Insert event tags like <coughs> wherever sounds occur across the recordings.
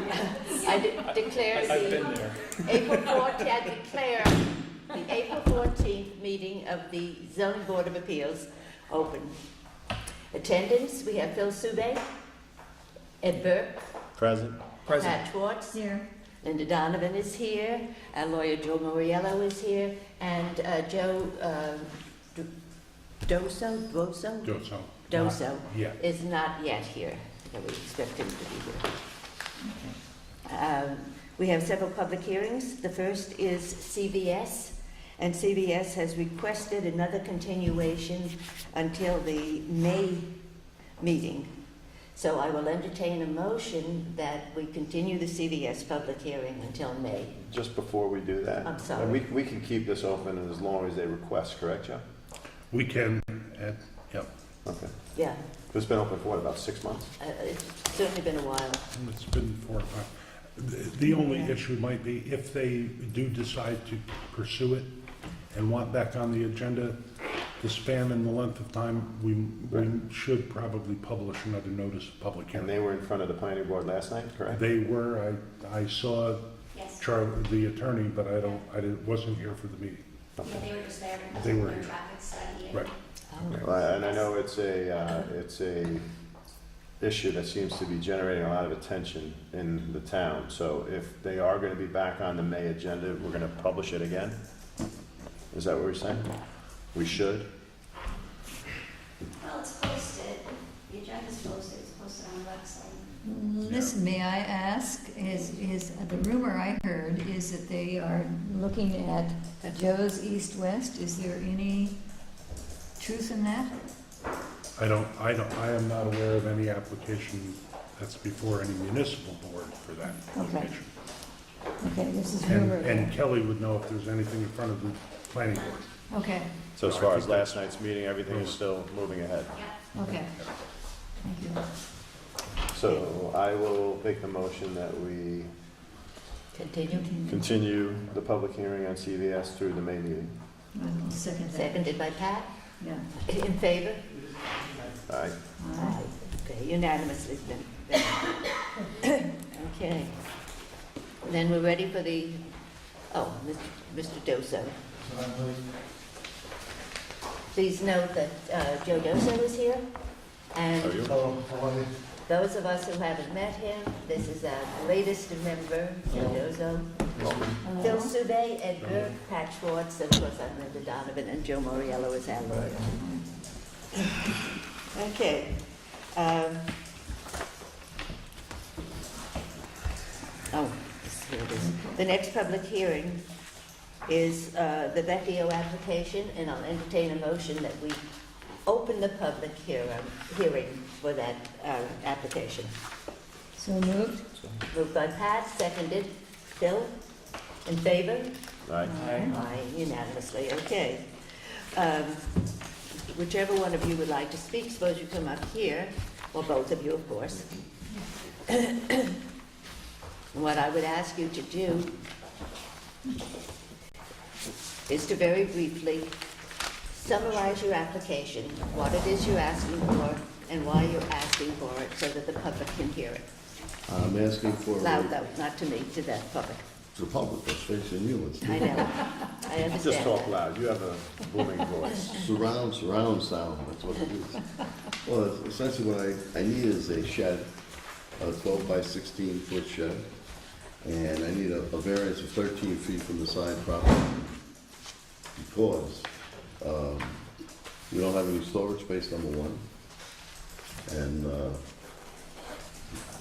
I de- declare I- I've the been there. April 14th, I declare the April 14th meeting of the zoning board of appeals open. Attendance, we have Phil Sube, Ed Burke, Present. Present. Pat Schwartz, Here. Linda Donovan is here, our lawyer Joe Moriello is here, and uh, Joe uh, Do- Doso, Doso? Don't so. Doso Yeah. is not yet here, but we expect him to be here. Um, We have several public hearings. The first is CVS, and CVS has requested another continuation until the May meeting. So I will entertain a motion that we continue the CVS public hearing until May. Just before we do that. I'm sorry. We, we can keep this open as long as they request, correct, Joe? We can, uh, yep. Okay. Yeah, It's been open for what, about six months? uh, it's certainly been a while. It's been four or five. The- The only Yeah. issue might be if they do decide to pursue it and want back on the agenda, the span and the length of time, we, we should probably publish another notice of public And they hearing. were in front of the planning board last night, correct? They were, I, I saw Yes. Charlie, the attorney, but I don't, I didn't- wasn't here for the meeting. Yeah, they were just there. because They of were their here. Traffic study. and- Right. Oh, Well, And I know it's a, uh, it's a issue that seems to be generating a lot of attention in the town. So if they are gonna be back on the May agenda, we're gonna publish it again? Is that what you're saying? We should? Well, it's posted, the agenda's posted, it's posted on the website. Mm-hmm. Listen, may I ask, is, is, uh, the rumor I heard is that they are looking at Joe's East West. Is there any truth in that? I don't, I don't, I am not aware of any application that's before any municipal board for that Okay. location. Okay, this is And, rumor. and Kelly would know if there's anything in front of the planning board. Okay, So as far as last night's meeting, everything is still moving ahead? Yeah. okay. Thank you. So I will make the motion that we Continue. continue the public hearing on CVS through the May meeting. I will second that. Seconded by Pat. Yeah. In favor? Aye. All right. Aye. Okay, unanimously then- then. Okay. Then we're ready for the, oh, Mr. Doso. Please note that uh, Joe Doso is here, Are and you? those of us who haven't met him, this is our latest member, Joe Doso. Phil Sube, Ed Burke, Pat Schwartz, of course, I'm Linda Donovan, and Joe Moriello is our lawyer. Okay. um, Oh, here it is. The next public hearing is uh, the Vecchio application, and I'll entertain a motion that we open the public hearing, hearing for that uh, application. So moved? Moved by Pat, seconded. Phil, in favor? Aye. Aye, unanimously, okay. Um, Whichever one of you would like to speak, suppose you come up here, or both of you, of course. <coughs> What I would ask you to do is to very briefly summarize your application, what it is you're asking for, and why you're asking for it, so that the public can hear it. I'm asking for, Loud to though, not to me, to the public. the public, that's facing you, it's I <laughs> know, I understand. Just talk that. loud, you have a booming voice. surround, surround sound, that's what it <laughs> is. Well, it's essentially what I, I need is a shed, a twelve by sixteen foot shed, and I need a, a variance of thirteen feet from the side property. Because, um, we don't have any storage space, number one. And, uh,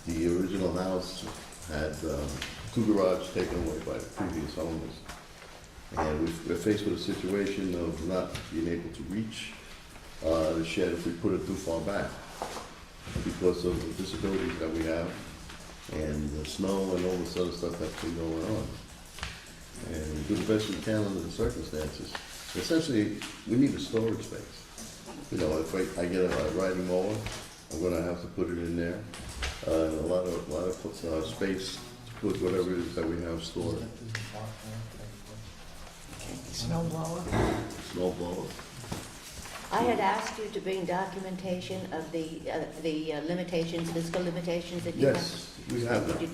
the original house had, um, two garages taken away by the previous owners. And we- we're faced with a situation of not being able to reach uh, the shed if we put it too far back because of the disabilities that we have and the snow and all this other stuff that's been going on. And we do the best we can under the circumstances. Essentially, we need a storage space. You know, if I I get a riding mower, I'm gonna have to put it in there. Uh, A lot of, a lot of uh, space to put whatever it is that we have stored. Snow blower. Snow blower. I had asked you to bring documentation of the, uh, the uh, limitations, fiscal limitations that you have. Yes, we have that. Did